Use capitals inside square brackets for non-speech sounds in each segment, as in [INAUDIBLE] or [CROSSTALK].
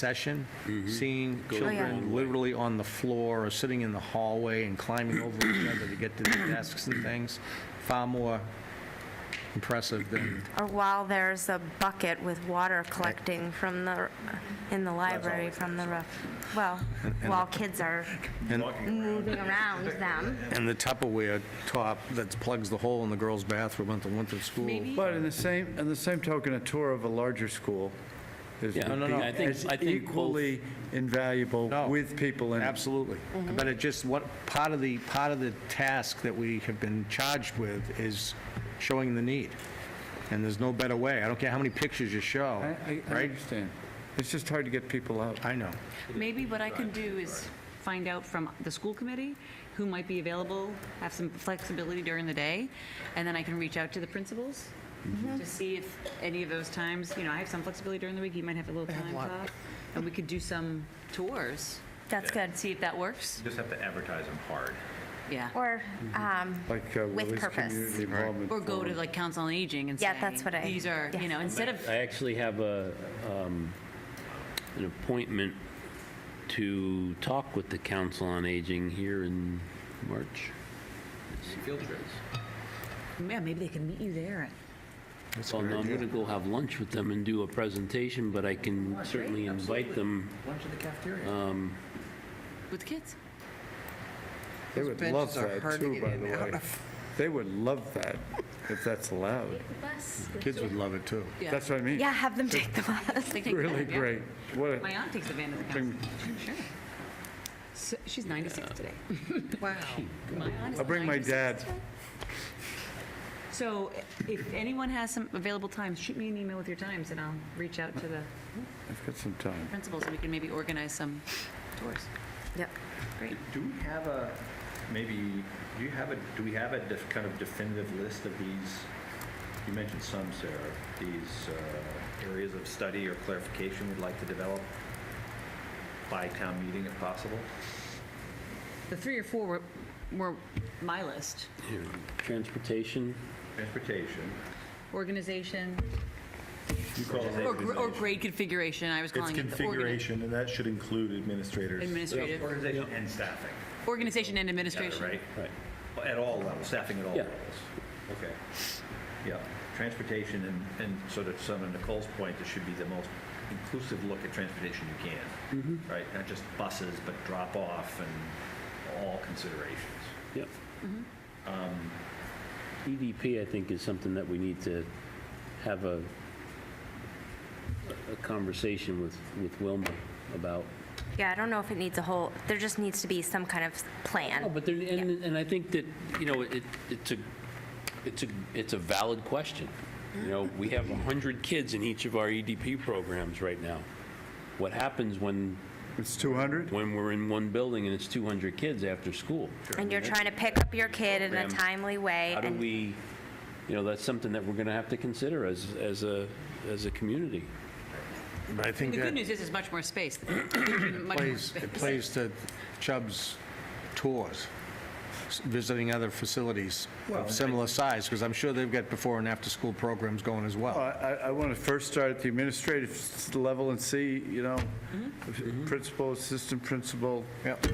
session, seeing children yeah. literally on the floor or sitting in the hallway and climbing over each other to get to their desks and things, far more impressive than, Or while there's a bucket with water collecting from the, in the library from the roof. Well, while kids are and moving around them. and the Tupperware top that plugs the hole in the girls' bathroom at the winter school. But in the same, in the same token, a tour of a larger school is Yeah, would no, no, I be think- as I think both- equally invaluable No, with people in it. Absolutely. Mm-hmm. But it just, what, part of the, part of the task that we have been charged with is showing the need. And there's no better way. I don't care how many pictures you I- show, I, I right? understand. It's just hard to get people out. I know. Maybe what I can do is find out from the school committee who might be available, have some flexibility during the day, and then I can reach out to the principals to see if any of those times, you know, I have some flexibility during the week, you might have a little time off, and we could do some tours, That's good. and see if that works. Just have to advertise them hard. Yeah. Or, um, Like uh, With Willie's purpose. Community Involvement. Or go to Forum. like Council on Aging and say. Yeah, that's what I- These are, yeah. you know, instead of, I actually have a, um, an appointment to talk with the Council on Aging here in March. yeah, maybe they can meet you there. Well, no, I'm going to go have lunch with them and do a presentation, but I can certainly invite them. Lunch in the cafeteria. With kids? They would love Benches are that hard to too, get by in the and out way. of. They would love that, if that's allowed. Kids would love it, too. Yeah. That's what I mean. yeah, have them take the bus. They take Really that, yeah. great. What, My a- aunt takes advantage of the council. Sure. So- She's 96 [LAUGHS] today. Wow. My aunt is I'll bring my 96. dad. So if anyone has some available times, shoot me an email with your times, and I'll reach out to the I've got some time. principals, and we can maybe organize some tours. Yep. Great. Do we have a, maybe, do you have a, do we have a def- kind of definitive list of these? You mentioned some, Sarah, these uh, areas of study or clarification we'd like to develop by town meeting if possible? The three or four were- were my list. Here, Transportation, Transportation. Organization, You call it or gr- or grade configuration, I was It's calling it. the organi- configuration, and that should include administrators. Administrative, Organization and staffing. organization and together, administration. Right? right. At all levels, staffing at all Yeah. levels. Okay. Yeah, transportation and, and sort of some of Nicole's point, this should be the most inclusive look at transportation you can. Right? Not just buses, but drop off and all considerations. Yep. EDP, I think, is something that we need to have a, a conversation with, with Wilma about. Yeah, I don't know if it needs a whole, there just needs to be some kind of Oh, plan. but there, and, and I think that, you know, it, it's a, it's a, it's a valid question. You know, we have 100 kids in each of our EDP programs right now. What happens when, It's 200? when we're in one building and it's 200 kids after school? And you're trying to pick up your kid in a Program. timely way. How do and- we, you know, that's something that we're going to have to consider as, as a, as a community. But I think The good that news is there's much [CLEARS THROAT] more space. Much more plays, it space. plays to Chubb's tours, s- visiting other facilities Well, of similar size, because I'm sure they've got before and after-school programs going as Well, well. I, I want to first start at the administrative s- level and see, you know, principal, assistant principal, Yep.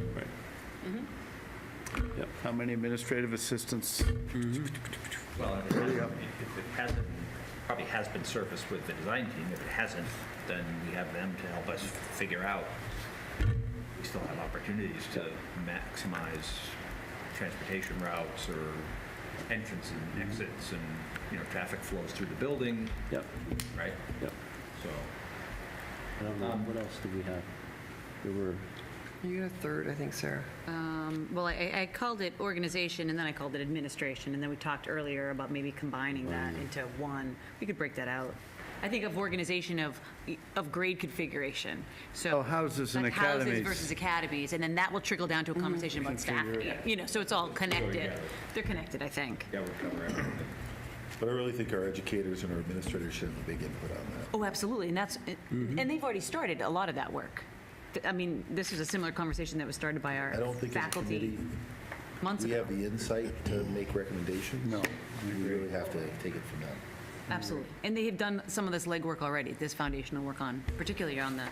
how many administrative assistants? Well, if it hasn't- if it hasn't, probably has been surfaced with the design team. If it hasn't, then we have them to help us figure out. We still have opportunities to maximize transportation routes or entrances and exits and, you know, traffic flows through the building, Yep, right? yep. So, I don't know, Um, what else do we have? There were, You got a third, I think, Sarah. Um, Well, I I called it organization, and then I called it administration, and then we talked earlier about maybe combining that into one. We could break that out. I think of organization of, of grade configuration, so. Oh, houses and like academies. Houses versus academies, and then that will trickle down to a Mm-hmm. conversation about staffing, you know, so it's all connected. They're connected, I think. yeah, we'll cover everything. But I really think our educators and our administrators should have a big input on that. Oh, absolutely, and that's, Mm-hmm. and they've already started a lot of that work. Th- I mean, this is a similar conversation that was started by our I don't think as a faculty committee, months we ago. have the insight to make recommendations. No, We really have to take it from them. Absolutely. And they have done some of this legwork already, this foundational work on, particularly on the